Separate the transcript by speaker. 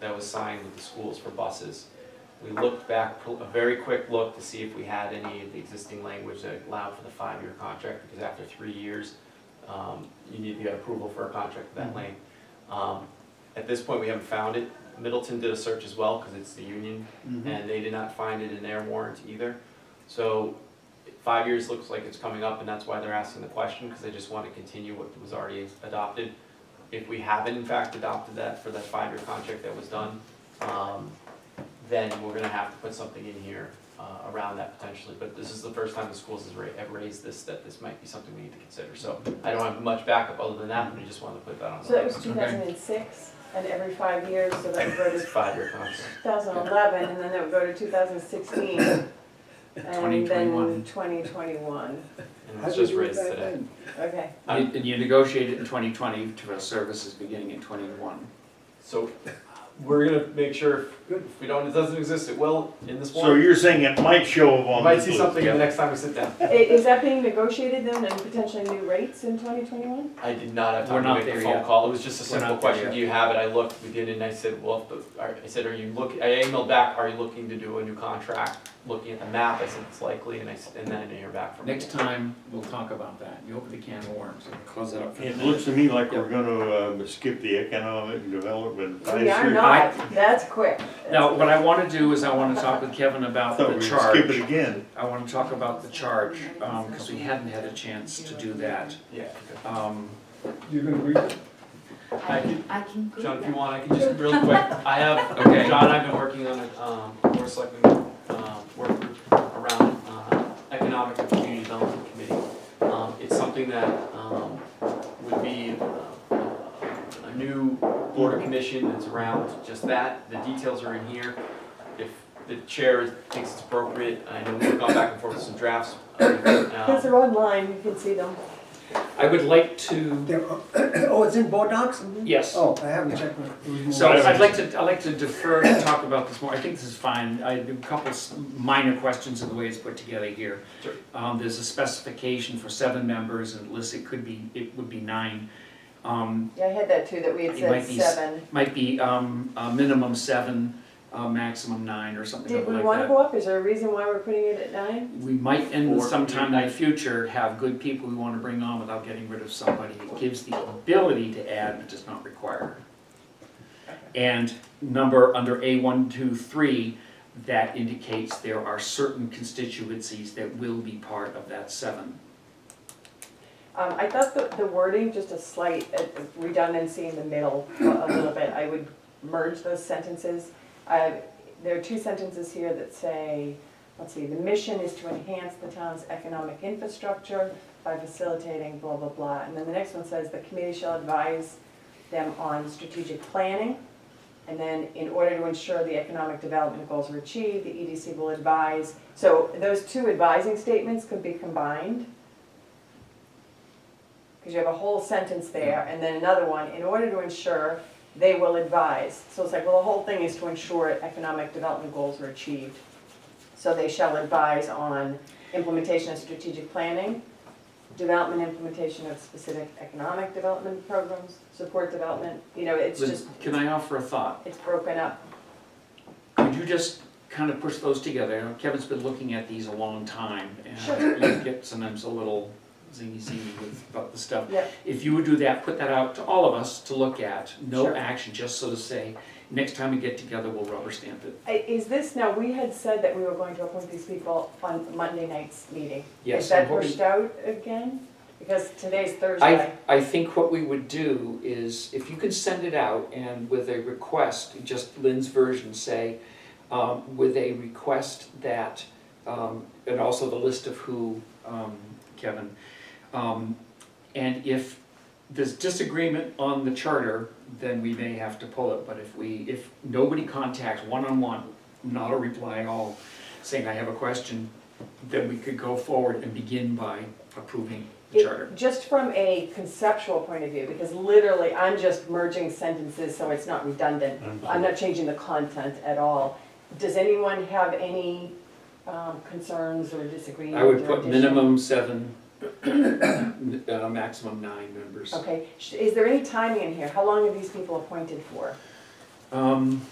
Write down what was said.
Speaker 1: that was signed with the schools for buses. We looked back, pull- a very quick look to see if we had any of the existing language that allowed for the five-year contract, because after three years, um, you need to get approval for a contract of that length. Um, At this point, we haven't found it. Middleton did a search as well, because it's the union,
Speaker 2: Mm-hmm.
Speaker 3: Mhm.
Speaker 1: and they did not find it in their warrant either. So five years looks like it's coming up, and that's why they're asking the question, because they just want to continue what was already adopted. If we haven't in fact adopted that for that five-year contract that was done, um, then we're gonna have to put something in here uh, around that potentially. But this is the first time the schools has ra- have raised this, that this might be something we need to consider. So I don't have much backup other than that, but I just wanted to put that on.
Speaker 4: So that
Speaker 1: the
Speaker 4: was two thousand and six, and every five years, so that would go
Speaker 1: It's
Speaker 4: to
Speaker 1: a five-year contract.
Speaker 4: two thousand and eleven, and then that would go to two thousand and sixteen. And then
Speaker 5: 2021.
Speaker 4: twenty twenty-one,
Speaker 1: And it
Speaker 3: How
Speaker 1: was
Speaker 3: did
Speaker 1: just
Speaker 3: you do
Speaker 1: raised
Speaker 3: that
Speaker 1: today.
Speaker 3: then?
Speaker 4: okay.
Speaker 5: And and you negotiated in 2020 to for services beginning in 21.
Speaker 1: So we're gonna make sure
Speaker 3: Good.
Speaker 1: if we don't, it doesn't exist, it will in this
Speaker 2: So
Speaker 1: one.
Speaker 2: you're saying it might show up
Speaker 1: You
Speaker 2: on
Speaker 1: might
Speaker 2: this
Speaker 1: see
Speaker 2: list?
Speaker 1: something the
Speaker 5: yeah.
Speaker 1: next time we sit down.
Speaker 4: I- Is that being negotiated then, and potentially new rates in twenty twenty-one?
Speaker 1: I did not have
Speaker 5: We're
Speaker 1: time to
Speaker 5: not
Speaker 1: make a
Speaker 5: there
Speaker 1: phone
Speaker 5: yet.
Speaker 1: call, it was just a
Speaker 5: We're
Speaker 1: simple
Speaker 5: not there
Speaker 1: question,
Speaker 5: yet.
Speaker 1: do you have it? I looked, we did it, and I said, well, the- I I said, are you look, I emailed back, are you looking to do a new contract? Looking at the map, I said, it's likely, and I, s- and then I didn't hear back from them.
Speaker 5: Next time, we'll talk about that. You open the can of worms and close it up for the
Speaker 2: It
Speaker 5: minute.
Speaker 2: looks to me like we're gonna uh, skip the economic development.
Speaker 4: We are
Speaker 2: advisory.
Speaker 4: not, that's quick.
Speaker 5: Now, what I want to do is I want to talk with Kevin about
Speaker 2: Thought
Speaker 5: the
Speaker 2: we'd skip
Speaker 5: charge.
Speaker 2: it again.
Speaker 5: I want to talk about the charge, because we hadn't had a chance to do that.
Speaker 1: Yeah,
Speaker 5: Um,
Speaker 3: You can agree with
Speaker 1: I
Speaker 6: I
Speaker 1: can-
Speaker 6: can, I can
Speaker 1: okay.
Speaker 6: go
Speaker 1: John, if you
Speaker 6: there.
Speaker 1: want, I can just, real quick, I have,
Speaker 5: Okay.
Speaker 1: John, I've been working on a, um, board selectmen, um, work group around, uh, economic and community development committee. Um, it's something that, um, would be, uh, a new board of commission that's around just that, the details are in here. If the chair thinks it's appropriate, I know we've gone back and forth with some drafts. uh,
Speaker 4: Because
Speaker 1: uh,
Speaker 4: they're online, you can see them.
Speaker 5: I would like to,
Speaker 3: There- Oh, it's in board docs?
Speaker 5: yes.
Speaker 3: Oh, I haven't checked. my- it was more-
Speaker 5: So
Speaker 2: Whatever.
Speaker 5: I'd like to, I'd like to defer to talk about this more, I think this is fine, I have a couple s- minor questions in the way it's put together here.
Speaker 1: Sure.
Speaker 5: Um, there's a specification for seven members, and Liz, it could be, it would be nine. Um,
Speaker 4: Yeah, I had that too, that we had
Speaker 5: It might
Speaker 4: said
Speaker 5: be s-
Speaker 4: seven.
Speaker 5: might be, um, a minimum seven, uh, maximum nine, or something like
Speaker 4: Did
Speaker 5: that.
Speaker 4: we wanna go up, is there a reason why we're putting it at nine?
Speaker 5: We might end
Speaker 1: Or-
Speaker 5: sometime in the future, have good people we wanna bring on without getting rid of somebody. It gives the ability to add, but does not require. And number under A one, two, three, that indicates there are certain constituencies that will be part of that seven.
Speaker 4: Um, I thought the, the wording, just a slight uh, redundancy in the middle a little bit, I would merge those sentences. Uh, there are two sentences here that say, let's see, the mission is to enhance the town's economic infrastructure by facilitating blah, blah, blah. And then the next one says, the committee shall advise them on strategic planning. And then in order to ensure the economic development goals are achieved, the EDC will advise. So those two advising statements could be combined. Because you have a whole sentence there, and then another one, in order to ensure, they will advise. So it's like, well, the whole thing is to ensure economic development goals are achieved. So they shall advise on implementation of strategic planning, development implementation of specific economic development programs, support development, you know, it's
Speaker 5: Liz,
Speaker 4: just,
Speaker 5: Can I offer a thought?
Speaker 4: it's broken up.
Speaker 5: Could you just kind of push those together? I know Kevin's been looking at these a long time, and you get sometimes a little zingy zingy with about the stuff.
Speaker 4: Yep.
Speaker 5: If you would do that, put that out to all of us to look at, no
Speaker 4: Sure.
Speaker 5: action, just so to say, next time we get together, we'll rubber stamp it.
Speaker 4: I- Is this, now, we had said that we were going to appoint these people on Monday night's meeting.
Speaker 5: Yes,
Speaker 4: Is that
Speaker 5: I'm hoping-
Speaker 4: pushed out again? Because today's Thursday.
Speaker 5: I, I think what we would do is, if you could send it out and with a request, just Lynn's version, say, um, with a request that, um, and also the list of who, um, Kevin, um, and if there's disagreement on the charter, then we may have to pull it, but if we, if nobody contacts one-on-one, not a reply at all, saying, I have a question, then we could go forward and begin by approving the
Speaker 4: It-
Speaker 5: charter.
Speaker 4: Just from a conceptual point of view, because literally, I'm just merging sentences so it's not redundant. I'm not changing the content at all. Does anyone have any um, concerns or disagreements?
Speaker 5: I would
Speaker 4: or
Speaker 5: put
Speaker 4: addition?
Speaker 5: minimum seven, n- uh, maximum nine members.
Speaker 4: Okay, Sh- is there any timing in here? How long are these people appointed for?
Speaker 5: Um,